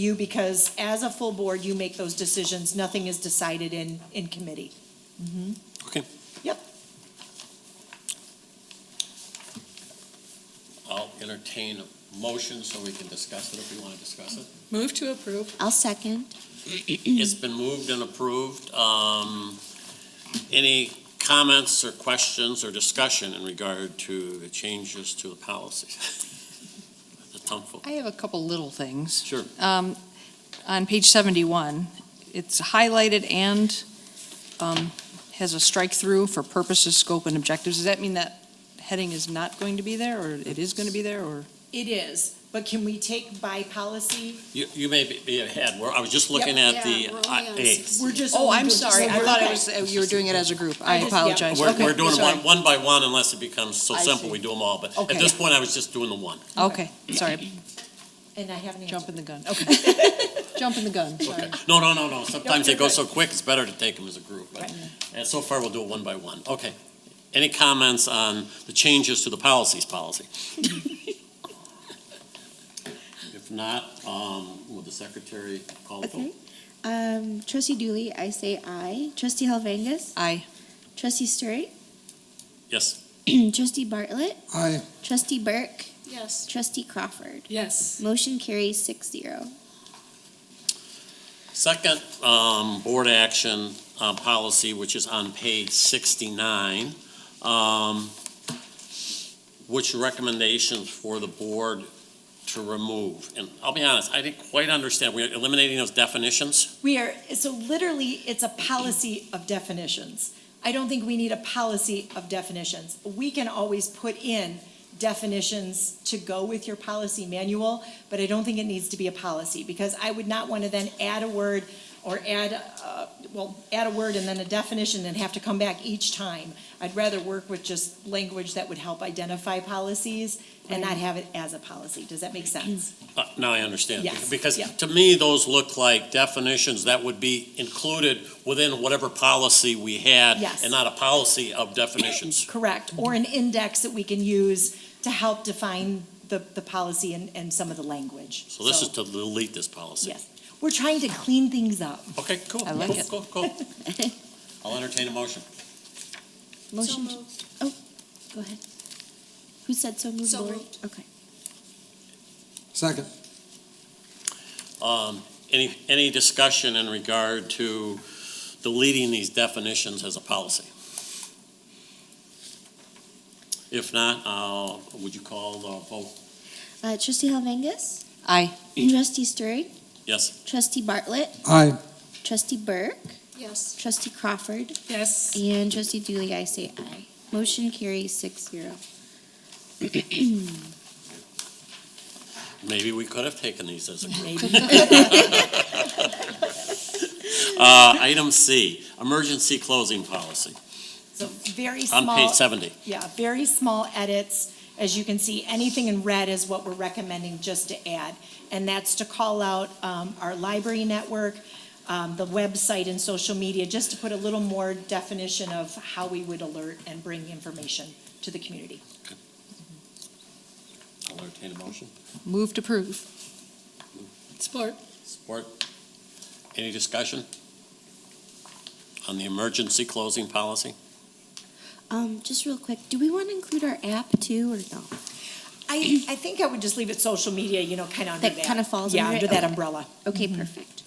you, because as a full board, you make those decisions. Nothing is decided in, in committee. Okay. Yep. I'll entertain a motion so we can discuss it if we want to discuss it. Move to approve. I'll second. It's been moved and approved. Um, Any comments or questions or discussion in regard to the changes to the policy? That's helpful. I have a couple little things. Sure. Um, On page 71, it's highlighted and um, has a strike-through for purposes, scope, and objectives. Does that mean that heading is not going to be there, or it is going to be there, or? It is, but can we take by policy? You, you may be- be ahead. We're- I was just looking Yep. at the, Yeah, we're I- only on A. six. We're just. Oh, only I'm doing- sorry, I we're- thought it was, uh, you were doing it as a group. I I just- yeah. apologize. We're, Okay, we're doing them sorry. one, one by one unless it becomes so I simple, see. we do them all. But at Okay. this point, I was just doing the one. Okay, sorry, And I haven't answered. jumping the gun. Okay, Jumping the gun, sorry. Okay. No, no, no, no. Sometimes they go okay. so quick, it's better to take them as a group. But Right. and so far, we'll do it one by one. Okay. Any comments on the changes to the policies policy? If not, um, will the secretary call the vote? Okay. Um, Trustee Dooley, I say aye. Trustee Helvangus, Aye. Trustee Sturt, Yes. Trustee Bartlett, Aye. Trustee Burke, Yes. Trustee Crawford. Yes. Motion carries six zero. Second, um, board action, uh, policy, which is on page sixty-nine, um, which recommendations for the board to remove? And I'll be honest, I didn't quite understand. We're eliminating those definitions? We are, so literally, it's a policy of definitions. I don't think we need a policy of definitions. We can always put in definitions to go with your policy manual, but I don't think it needs to be a policy, because I would not want to then add a word or add, uh, well, add a word and then a definition and have to come back each time. I'd rather work with just language that would help identify policies and not have it as a policy. Does that make sense? Uh, Now I understand. Yes, Because yeah. to me, those look like definitions that would be included within whatever policy we had. Yes. And not a policy of definitions. Correct, or an index that we can use to help define the, the policy and, and some of the language. So this is to delete this policy. Yes, we're trying to clean things up. Okay, cool. I like Cool, Cool, it. cool. I'll entertain a motion. Motion. Oh, go ahead. Who said so moved? So Lori? moved. Okay. Second. Um, Any, any discussion in regard to deleting these definitions as a policy? If not, uh, would you call the vote? Uh, Trustee Helvangus, Aye. Trustee Sturt, Yes, Trustee Bartlett, Aye. Trustee Burke, Yes. Trustee Crawford, Yes. and Trustee Dooley, I say aye. Motion carries six zero. maybe we could have taken these as a group. Maybe Uh, item C, emergency closing policy, So very on page small, seventy. yeah, very small edits. As you can see, anything in red is what we're recommending just to add. And that's to call out um, our library network, um, the website and social media, just to put a little more definition of how we would alert and bring information to the community. I'll entertain a motion. Move to approve. Support. Support. Any discussion on the emergency closing policy? Um, just real quick, do we want to include our app too, or no? I, I think I would just leave it social media, you know, kind of under that. That kinda falls Yeah, under it? under that Okay. umbrella. Okay, perfect.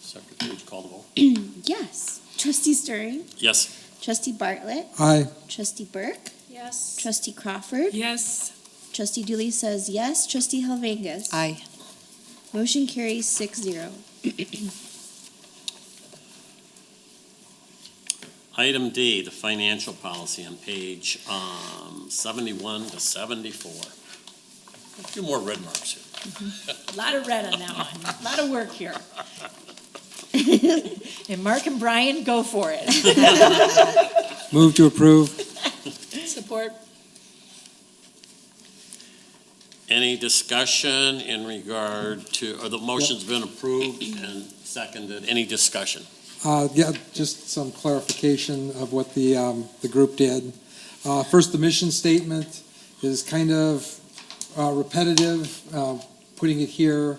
Secretary, would you call the vote? Yes. Trustee Stirring, Yes. Trustee Bartlett, Aye. Trustee Burke, Yes. Trustee Crawford. Yes. Trustee Dooley says yes. Trustee Helvangus. Aye. Motion carries six zero. Item D, the financial policy on page, um, seventy-one to seventy-four. A few more red marks here. Lot of red on that one, lot of work here. And Mark and Brian, go for it. Move to approve. Support. Any discussion in regard to, or the motion's been approved and seconded, any discussion? Uh, yeah, just some clarification of what the, um, the group did. Uh, first, the mission statement is kind of uh, repetitive, uh, putting it here.